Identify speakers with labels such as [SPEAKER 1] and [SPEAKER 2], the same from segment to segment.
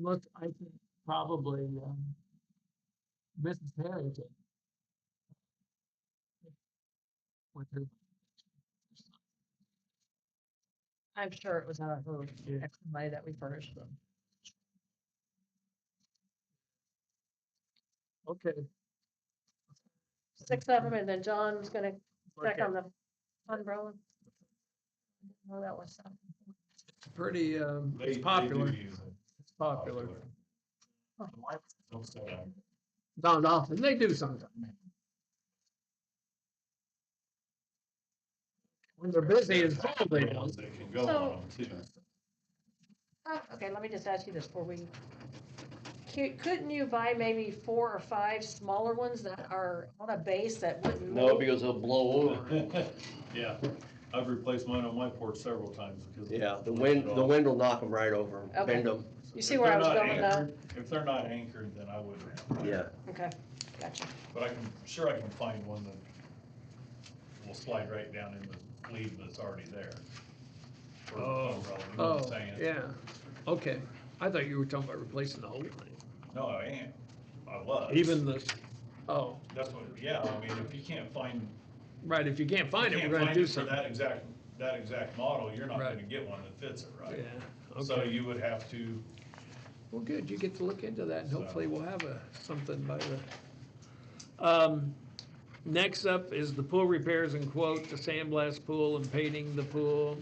[SPEAKER 1] look, I think probably, um, Mrs. Harrington. With her,
[SPEAKER 2] I'm sure it was out of her
[SPEAKER 1] Yeah.
[SPEAKER 2] extra money that we furnished them.
[SPEAKER 1] okay.
[SPEAKER 2] Six of them, and then John was gonna check
[SPEAKER 1] okay.
[SPEAKER 2] on the umbrella. No, that was something.
[SPEAKER 1] It's Pretty, um,
[SPEAKER 3] They- they
[SPEAKER 1] it's
[SPEAKER 3] do
[SPEAKER 1] popular,
[SPEAKER 3] use it.
[SPEAKER 1] it's popular.
[SPEAKER 2] Oh.
[SPEAKER 3] Don't say that.
[SPEAKER 1] Not often, they do sometimes. When they're busy, it's full, they
[SPEAKER 3] The
[SPEAKER 1] do.
[SPEAKER 3] ones that can go
[SPEAKER 2] So-
[SPEAKER 3] on them too.
[SPEAKER 2] Uh, Okay, let me just ask you this before we, Cou- couldn't you buy maybe four or five smaller ones that are on a base that wouldn't?
[SPEAKER 4] No,
[SPEAKER 2] move?
[SPEAKER 4] because it'll blow over.
[SPEAKER 3] Yeah, I've replaced mine on my porch several times because.
[SPEAKER 4] Yeah, the wind, the wind will knock them right over,
[SPEAKER 2] Okay.
[SPEAKER 4] bend them,
[SPEAKER 2] You
[SPEAKER 3] If
[SPEAKER 2] see where I
[SPEAKER 3] they're
[SPEAKER 2] was
[SPEAKER 3] not
[SPEAKER 2] going with that?
[SPEAKER 3] anchored- If they're not anchored, then I wouldn't.
[SPEAKER 4] yeah.
[SPEAKER 2] Okay, gotcha.
[SPEAKER 3] But I can, sure I can find one that will slide right down in the lead that's already there. For the
[SPEAKER 1] Oh.
[SPEAKER 3] umbrella, you know what I'm
[SPEAKER 1] Oh,
[SPEAKER 3] saying?
[SPEAKER 1] yeah, okay. I thought you were talking about replacing the whole thing,
[SPEAKER 3] No, I am, I was.
[SPEAKER 1] even the, oh,
[SPEAKER 3] That's what, yeah, I mean, if you can't find
[SPEAKER 1] right, if you can't find
[SPEAKER 3] you
[SPEAKER 1] it,
[SPEAKER 3] can't
[SPEAKER 1] we're gonna
[SPEAKER 3] find it
[SPEAKER 1] do
[SPEAKER 3] for
[SPEAKER 1] something.
[SPEAKER 3] That exact, that exact model, you're not
[SPEAKER 1] Right.
[SPEAKER 3] gonna get one that fits it,
[SPEAKER 1] Yeah,
[SPEAKER 3] right? So
[SPEAKER 1] okay.
[SPEAKER 3] you would have to,
[SPEAKER 1] Well, good, you get to look into that, and
[SPEAKER 3] So-
[SPEAKER 1] hopefully we'll have a, something by the. Um, next up is the pool repairs and quote, the sandblast pool and painting the pool,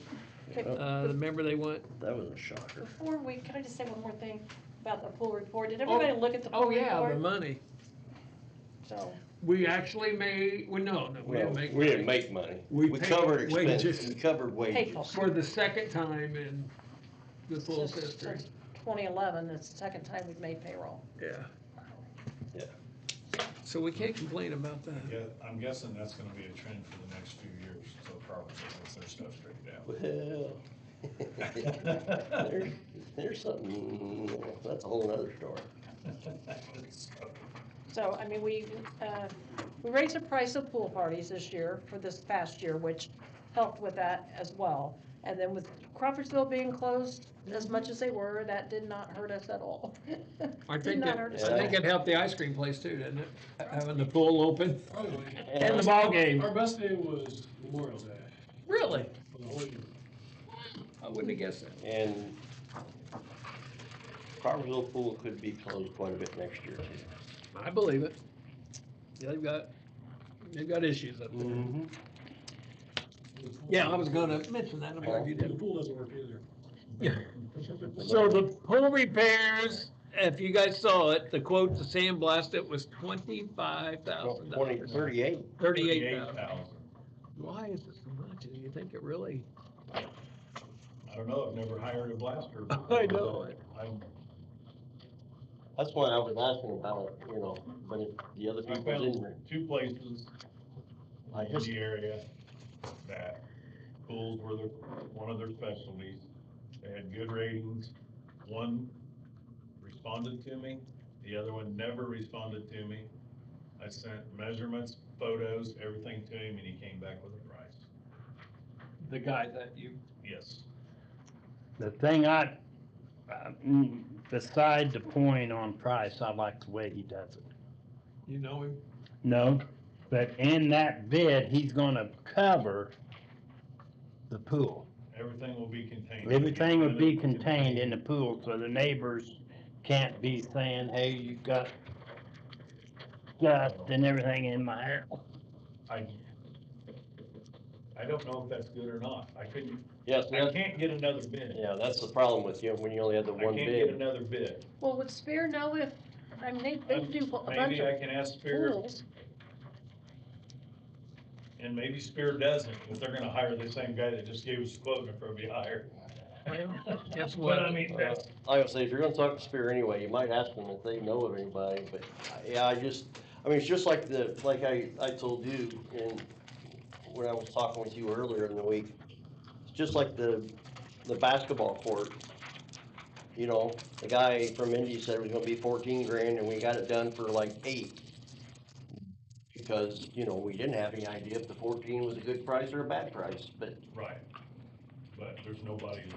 [SPEAKER 2] Okay,
[SPEAKER 1] uh, the member they want.
[SPEAKER 4] That was a shocker.
[SPEAKER 2] Before we, can I just say one more thing about the pool report? Did everybody look at the pool
[SPEAKER 1] Oh, yeah, the
[SPEAKER 2] report?
[SPEAKER 1] money.
[SPEAKER 2] So,
[SPEAKER 1] We actually made, well, no, no, we
[SPEAKER 4] Well,
[SPEAKER 1] didn't make.
[SPEAKER 4] we didn't
[SPEAKER 1] money.
[SPEAKER 4] make money.
[SPEAKER 1] We
[SPEAKER 4] We
[SPEAKER 1] paid
[SPEAKER 4] covered
[SPEAKER 1] wages.
[SPEAKER 4] expenses, we covered
[SPEAKER 2] Painful.
[SPEAKER 4] wages.
[SPEAKER 1] For the second time in the pool
[SPEAKER 2] since-
[SPEAKER 1] history,
[SPEAKER 2] since 2011, it's the second time we've made payroll.
[SPEAKER 1] yeah.
[SPEAKER 4] Yeah.
[SPEAKER 1] So we can't complain about that.
[SPEAKER 3] yeah, I'm guessing that's gonna be a trend for the next few years, so probably once their stuff straightened out.
[SPEAKER 4] Well, there's, there's something, that's a whole nother story.
[SPEAKER 2] So, I mean, we, uh, we raised the price of pool parties this year for this past year, which helped with that as well. And then with Crawfordsville being closed as much as they were, that did not hurt us at all.
[SPEAKER 1] I
[SPEAKER 2] Did
[SPEAKER 1] think
[SPEAKER 2] not
[SPEAKER 1] that,
[SPEAKER 2] hurt us.
[SPEAKER 1] I think it helped the ice cream place too, didn't it? Having the pool open and the
[SPEAKER 4] And
[SPEAKER 1] ball game.
[SPEAKER 5] Our best day was Memorial Day
[SPEAKER 1] Really?
[SPEAKER 5] for the whole year.
[SPEAKER 1] I wouldn't have guessed that.
[SPEAKER 4] and Carversville Pool could be closed quite a bit next year too.
[SPEAKER 1] I believe it. They've got, they've got issues up there. Yeah, I was gonna mention that, I'm glad you
[SPEAKER 5] The
[SPEAKER 1] did.
[SPEAKER 5] pool doesn't work either.
[SPEAKER 1] So the pool repairs, if you guys saw it, the quote to sandblast it was twenty-five thousand
[SPEAKER 4] Twenty,
[SPEAKER 1] dollars.
[SPEAKER 4] thirty-eight.
[SPEAKER 1] Thirty-eight thousand.
[SPEAKER 3] thousand.
[SPEAKER 1] Why is it so much? Do you think it really?
[SPEAKER 3] I don't know, I've never hired a blaster. before,
[SPEAKER 1] I know
[SPEAKER 3] but
[SPEAKER 1] it.
[SPEAKER 3] I'm-
[SPEAKER 4] That's why I was asking about it, you know, but if the other
[SPEAKER 3] I
[SPEAKER 4] people didn't.
[SPEAKER 3] found two places
[SPEAKER 4] I
[SPEAKER 3] in
[SPEAKER 4] just-
[SPEAKER 3] the area that pools were their, one of their specialties. They had good ratings. One responded to me, the other one never responded to me. I sent measurements, photos, everything to him, and he came back with a price.
[SPEAKER 1] The guy that you.
[SPEAKER 3] Yes.
[SPEAKER 6] The thing I, uh, mm, beside the point on price, I like the way he does it.
[SPEAKER 1] You know him?
[SPEAKER 6] No, but in that bid, he's gonna cover the pool.
[SPEAKER 3] Everything will be contained.
[SPEAKER 6] Everything would be contained in the pool, so the neighbors can't be saying, hey, you got dust and everything in my hair.
[SPEAKER 3] I, I don't know if that's good or not. I couldn't,
[SPEAKER 4] Yes,
[SPEAKER 3] I
[SPEAKER 4] yeah,
[SPEAKER 3] can't get another bid.
[SPEAKER 4] that's the problem with you, when you only have the
[SPEAKER 3] I
[SPEAKER 4] one
[SPEAKER 3] can't get
[SPEAKER 4] bid.
[SPEAKER 3] another bid.
[SPEAKER 2] Well, would Spear know if, I mean, they, they do a bunch
[SPEAKER 3] Um, Maybe I
[SPEAKER 2] of
[SPEAKER 3] can ask Spear,
[SPEAKER 2] pools.
[SPEAKER 3] and maybe Spear doesn't, if they're gonna hire the same guy that just gave us a quote, they'll probably hire.
[SPEAKER 1] Guess
[SPEAKER 3] But I
[SPEAKER 1] what?
[SPEAKER 3] mean,
[SPEAKER 4] Uh,
[SPEAKER 3] that's,
[SPEAKER 4] Like I say, if you're gonna talk to Spear anyway, you might ask them if they know of anybody, but, I- yeah, I just, I mean, it's just like the, like I, I told you, and when I was talking with you earlier in the week, it's just like the, the basketball court. You know, the guy from Indy said it was gonna be fourteen grand, and we got it done for like eight. Because, you know, we didn't have any idea if the fourteen was a good price or a bad price, but
[SPEAKER 3] right, but there's nobody